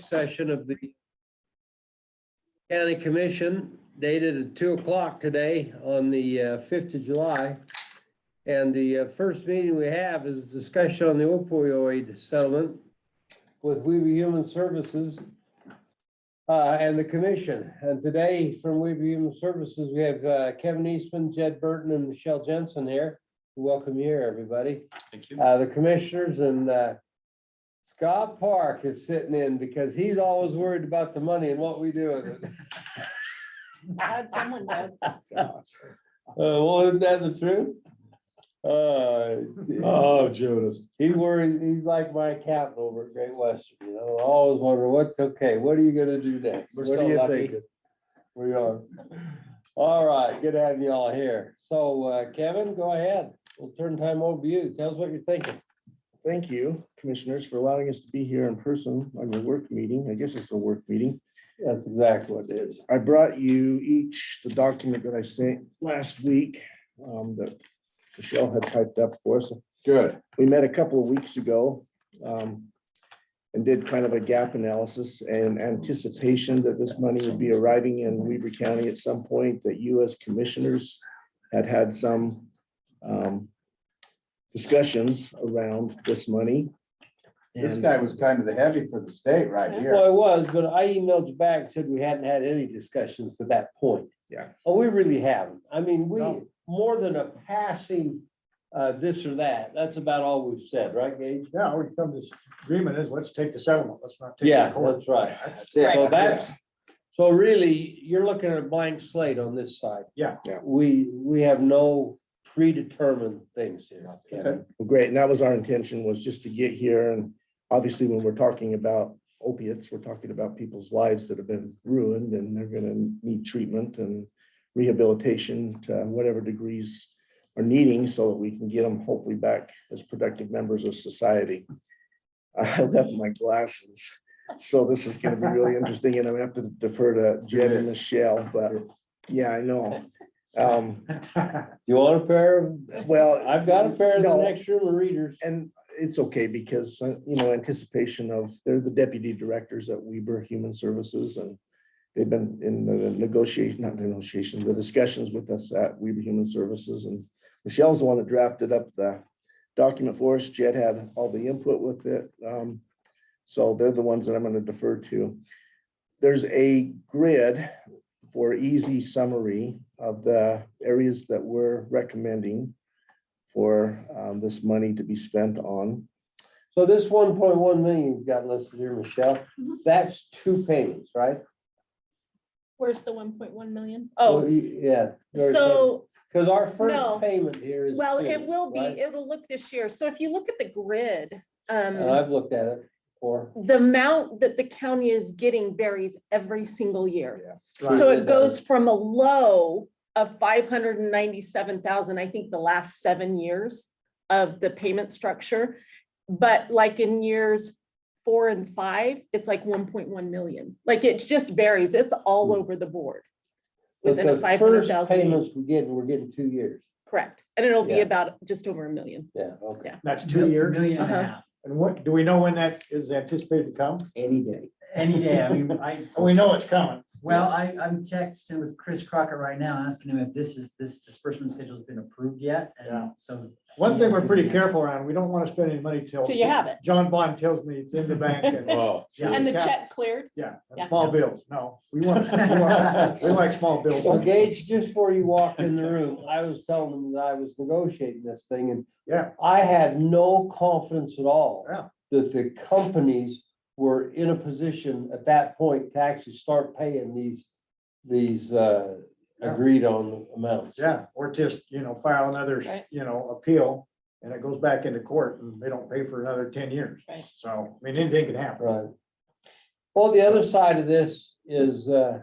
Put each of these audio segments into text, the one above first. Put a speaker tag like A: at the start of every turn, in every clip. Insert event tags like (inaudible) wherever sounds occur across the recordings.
A: session of the county commission dated at two o'clock today on the uh, fifth of July. And the uh, first meeting we have is discussion on the opioid settlement with Weaver Human Services uh, and the commission. And today from Weaver Human Services, we have uh, Kevin Eastman, Jed Burton, and Michelle Jensen here. Welcome here, everybody.
B: Thank you.
A: Uh, the commissioners and, uh, Scott Park is sitting in because he's always worried about the money and what we do with it.
C: Glad someone does.
A: (laughs) Uh, well, isn't that the truth? Uh,
B: Oh, Judas.
A: he worried, he's like my accountant over at Great Western, you know, I always wonder what's okay, what are you gonna do next?
B: We're
A: What
B: so
A: are you
B: lucky.
A: thinking? We are. All right, good having y'all here. So, uh, Kevin, go ahead. We'll turn time over to you. Tell us what you're thinking.
D: Thank you, commissioners, for allowing us to be here in person on your work meeting. I guess it's a work meeting.
A: That's exactly what it is.
D: I brought you each the document that I sent last week um, that Michelle had typed up for us.
B: Good.
D: We met a couple of weeks ago um, and did kind of a gap analysis and anticipation that this money would be arriving in Weaver County at some point, that you as commissioners had had some um, discussions around this money.
E: This
D: And-
E: guy was kind of the heavy for the state right here.
A: Well, I was, but I emailed you back, and said we hadn't had any discussions to that point.
D: Yeah.
A: Oh, we really haven't. I mean, we,
E: No.
A: more than a passing, uh, this or that, that's about all we've said, right, Gage?
E: Yeah, we come to this agreement is, let's take the settlement, let's not take.
A: Yeah, (laughs) that's right.
E: That's it.
A: So that's, so really, you're looking at a blank slate on this side.
E: Yeah.
D: Yeah.
A: We, we have no predetermined things here. Kevin.
D: Well, great, and that was our intention, was just to get here, and obviously, when we're talking about opiates, we're talking about people's lives that have been ruined, and they're gonna need treatment and rehabilitation to whatever degrees are needing, so that we can get them hopefully back as productive members of society. (laughs) I left my glasses, so this is gonna be really interesting, and I'm gonna have to defer to Jed and
E: Yes.
D: Michelle, but, yeah,
A: (laughs)
D: I know. Um,
A: Do you want a pair of,
D: well.
A: I've got a pair of the
D: No.
A: next room of readers.
D: And it's okay because, uh, you know, anticipation of, they're the deputy directors at Weber Human Services and they've been in the negotiation, not negotiation, the discussions with us at Weber Human Services and Michelle's the one that drafted up the document for us. Jed had all the input with it. Um, So they're the ones that I'm going to defer to. There's a grid for easy summary of the areas that we're recommending for um, this money to be spent on.
A: So this one point one million you've got listed here, Michelle,
C: Mhm.
A: that's two payments, right?
C: Where's the one point one million?
A: Well,
C: Oh,
A: you- Yeah.
C: so,
A: Because our
C: No.
A: first payment here is.
C: well, it
A: payments,
C: will be,
A: right?
C: it'll look this year. So if you look at the grid,
A: And
C: um,
A: I've looked at it before.
C: the amount that the county is getting varies every single year. So
A: Right.
C: it goes from a low of five hundred and ninety-seven thousand, I think the last seven years of the payment structure. But like in years four and five, it's like one point one million. Like it just varies. It's all over the board.
A: Hmm. But
C: Within a
A: the
C: five hundred
A: first
C: thousand.
A: Payments we're getting, we're getting two years.
C: Correct. And it'll be
A: Yeah.
C: about just over a million.
A: Yeah, okay.
E: That's two years.
F: Million and
C: Uh-huh.
F: a half,
E: And what, do we know when that is anticipated to come?
D: Any day.
F: any day. I mean,
E: (laughs)
F: I,
E: We know it's coming.
F: well, I, I'm texting with Chris Crocker right now, asking him if this is, this disbursement schedule's been approved yet.
E: Yeah.
F: And so
E: One thing we're pretty careful around, we don't want to spend any money till.
C: So you have it.
E: John Bond tells me it's in the bank.
C: (laughs)
E: and-
B: Wow.
E: Yeah.
C: And the check cleared.
E: Yeah,
C: Yeah.
E: small bills, no, we want, we
A: (laughs)
E: want- we like small bills.
A: Well, Gage, just before you walked in the room, I was telling them that I was negotiating this thing and.
E: Yeah.
A: I had no confidence at all.
E: Yeah.
A: That the companies were in a position at that point to actually start paying these, these, uh,
E: Yeah.
A: agreed on amounts.
E: Yeah, or just, you know, file another,
C: Right.
E: you know, appeal and it goes back into court and they don't pay for another ten years.
C: Right.
E: So, I mean, anything can happen.
A: Right. Well, the other side of this is, uh,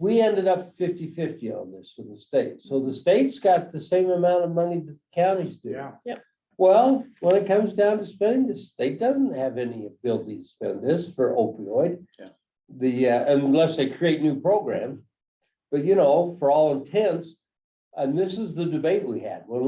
A: we ended up 50-50 on this with the state. So the state's got the same amount of money that the counties do.
E: Yeah,
A: Well, when it comes down to spending, the state doesn't have any ability to spend this for opioid.
B: Yeah.
A: The, uh, unless they create new programs, but you know, for all intents, and this is the debate we had when